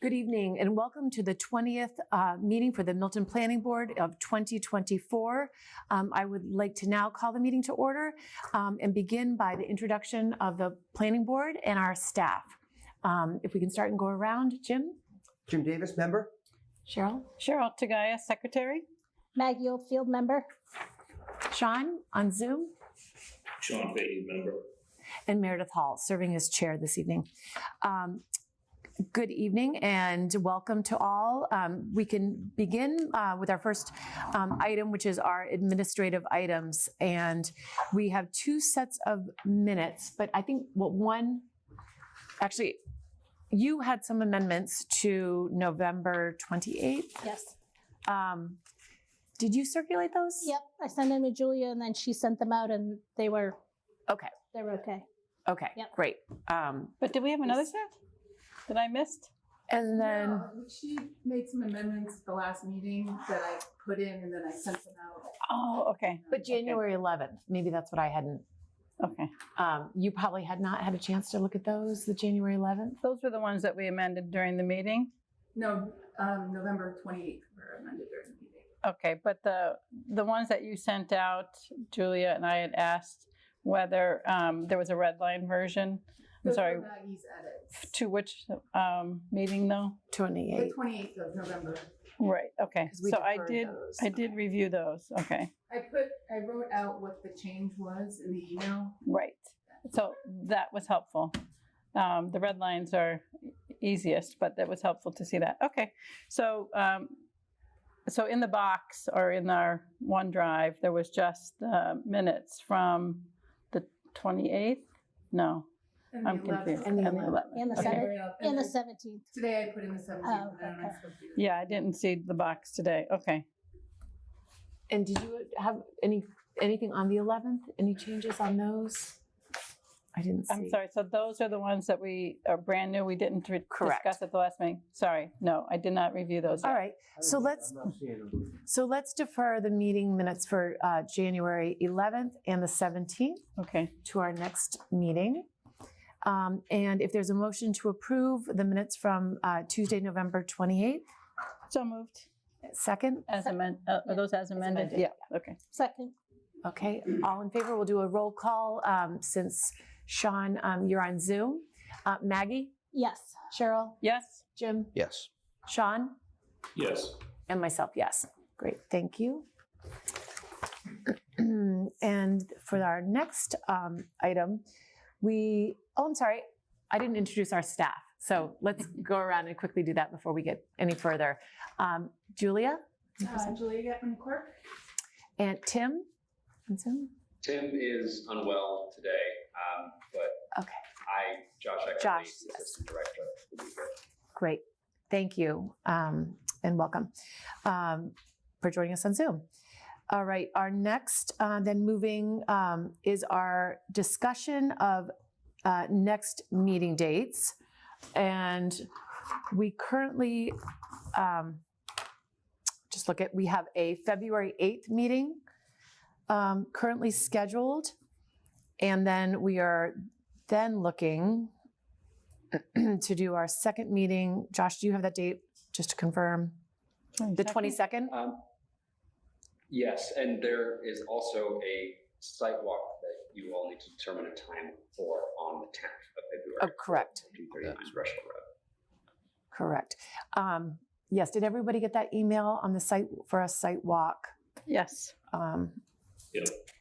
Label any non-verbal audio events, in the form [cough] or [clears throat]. Good evening and welcome to the 20th uh, meeting for the Milton Planning Board of 2024. Um, I would like to now call the meeting to order um, and begin by the introduction of the Planning Board and our staff. Um, If we can start and go around, Jim, Jim Davis, member? Cheryl, Cheryl Tagaya, Secretary. Maggie Oldfield, member. Sean on Zoom, Sean Fahey, member. and Meredith Hall, serving as chair this evening. Um, Good evening and welcome to all. Um, We can begin uh, with our first um, item, which is our administrative items. And we have two sets of minutes, but I think, well, one, actually, you had some amendments to November 28th. Yes. Um, Did you circulate those? Yep, I sent them to Julia and then she sent them out and they were. Okay. They were okay. Okay, Yep. great. Um, But did we have another set that I missed? And then, No, She made some amendments at the last meeting that I put in and then I sent them out. Oh, okay, but January 11th, maybe that's what I hadn't okay. Um, you probably had not had a chance to look at those, the January 11th. Those were the ones that we amended during the meeting. No, um, November twenty-eighth were amended during the meeting. Okay, but the, the ones that you sent out, Julia and I had asked whether um, there was a red line version. I'm Those sorry, were Maggie's edits. to which um, meeting though? The 28. twenty-eighth of November. Right, okay. 'Cause we So I deferred did, those. I did review those, okay, I put, I wrote out what the change was in the email. right. So that was helpful. Um, The red lines are easiest, but that was helpful to see that. Okay, so, um, so in the box or in our OneDrive, there was just uh, minutes from the 28th? No, and the I'm 11th. confused. And the And the 11th. And the Okay. seventh, Right up. and the then seventeenth. Today I put in the seventeenth, Oh, but I don't know. if okay. I spoke to you. Yeah, I didn't see the box today. Okay. And did you have any anything on the 11th? Any changes on those? I didn't see. I'm sorry, so those are the ones that we are brand new, we didn't re- Correct. discuss at the last meeting? Sorry, no, I did not review those. All right. So let's- I'm not seeing them. So let's defer the meeting minutes for uh, January 11th and the 17th. Okay, to our next meeting. Um, And if there's a motion to approve the minutes from uh, Tuesday, November 28th, so moved. second, As amended, are Yeah, those as amended? amended, Yeah, okay. Second, Okay, all in favor, we'll do a roll call um, since Sean, um, you're on Zoom. Uh, Maggie, yes. Cheryl, Yes, Jim, Yes. Sean, Yes. and myself, yes. Great, thank you. [clears throat] And for our next um, item, we, oh, I'm sorry, I didn't introduce our staff. So let's [laughs] go around and quickly do that before we get any further. Um, Julia Uh, Julia Getman Clark? and Tim on Zoom? Tim is unwell today, um, but Okay. I, Josh Eckerly, Josh, yes. Assistant Director, will be here. Great. Thank you um, and welcome um, for joining us on Zoom. All right, our next, uh, then moving um, is our discussion of uh, next meeting dates. And we currently, um, just look at, we have a February 8th meeting um, currently scheduled. And then we are then looking, [clears throat] to do our second meeting. Josh, do you have that date just to confirm? The 22nd? Um, Yes, and there is also a site walk that you all need to determine a time for on the 10th of Oh, February. correct, 239 Rushmore Road. correct. Um, Yes, did everybody get that email on the site for a site walk? Yes. Um, Yep.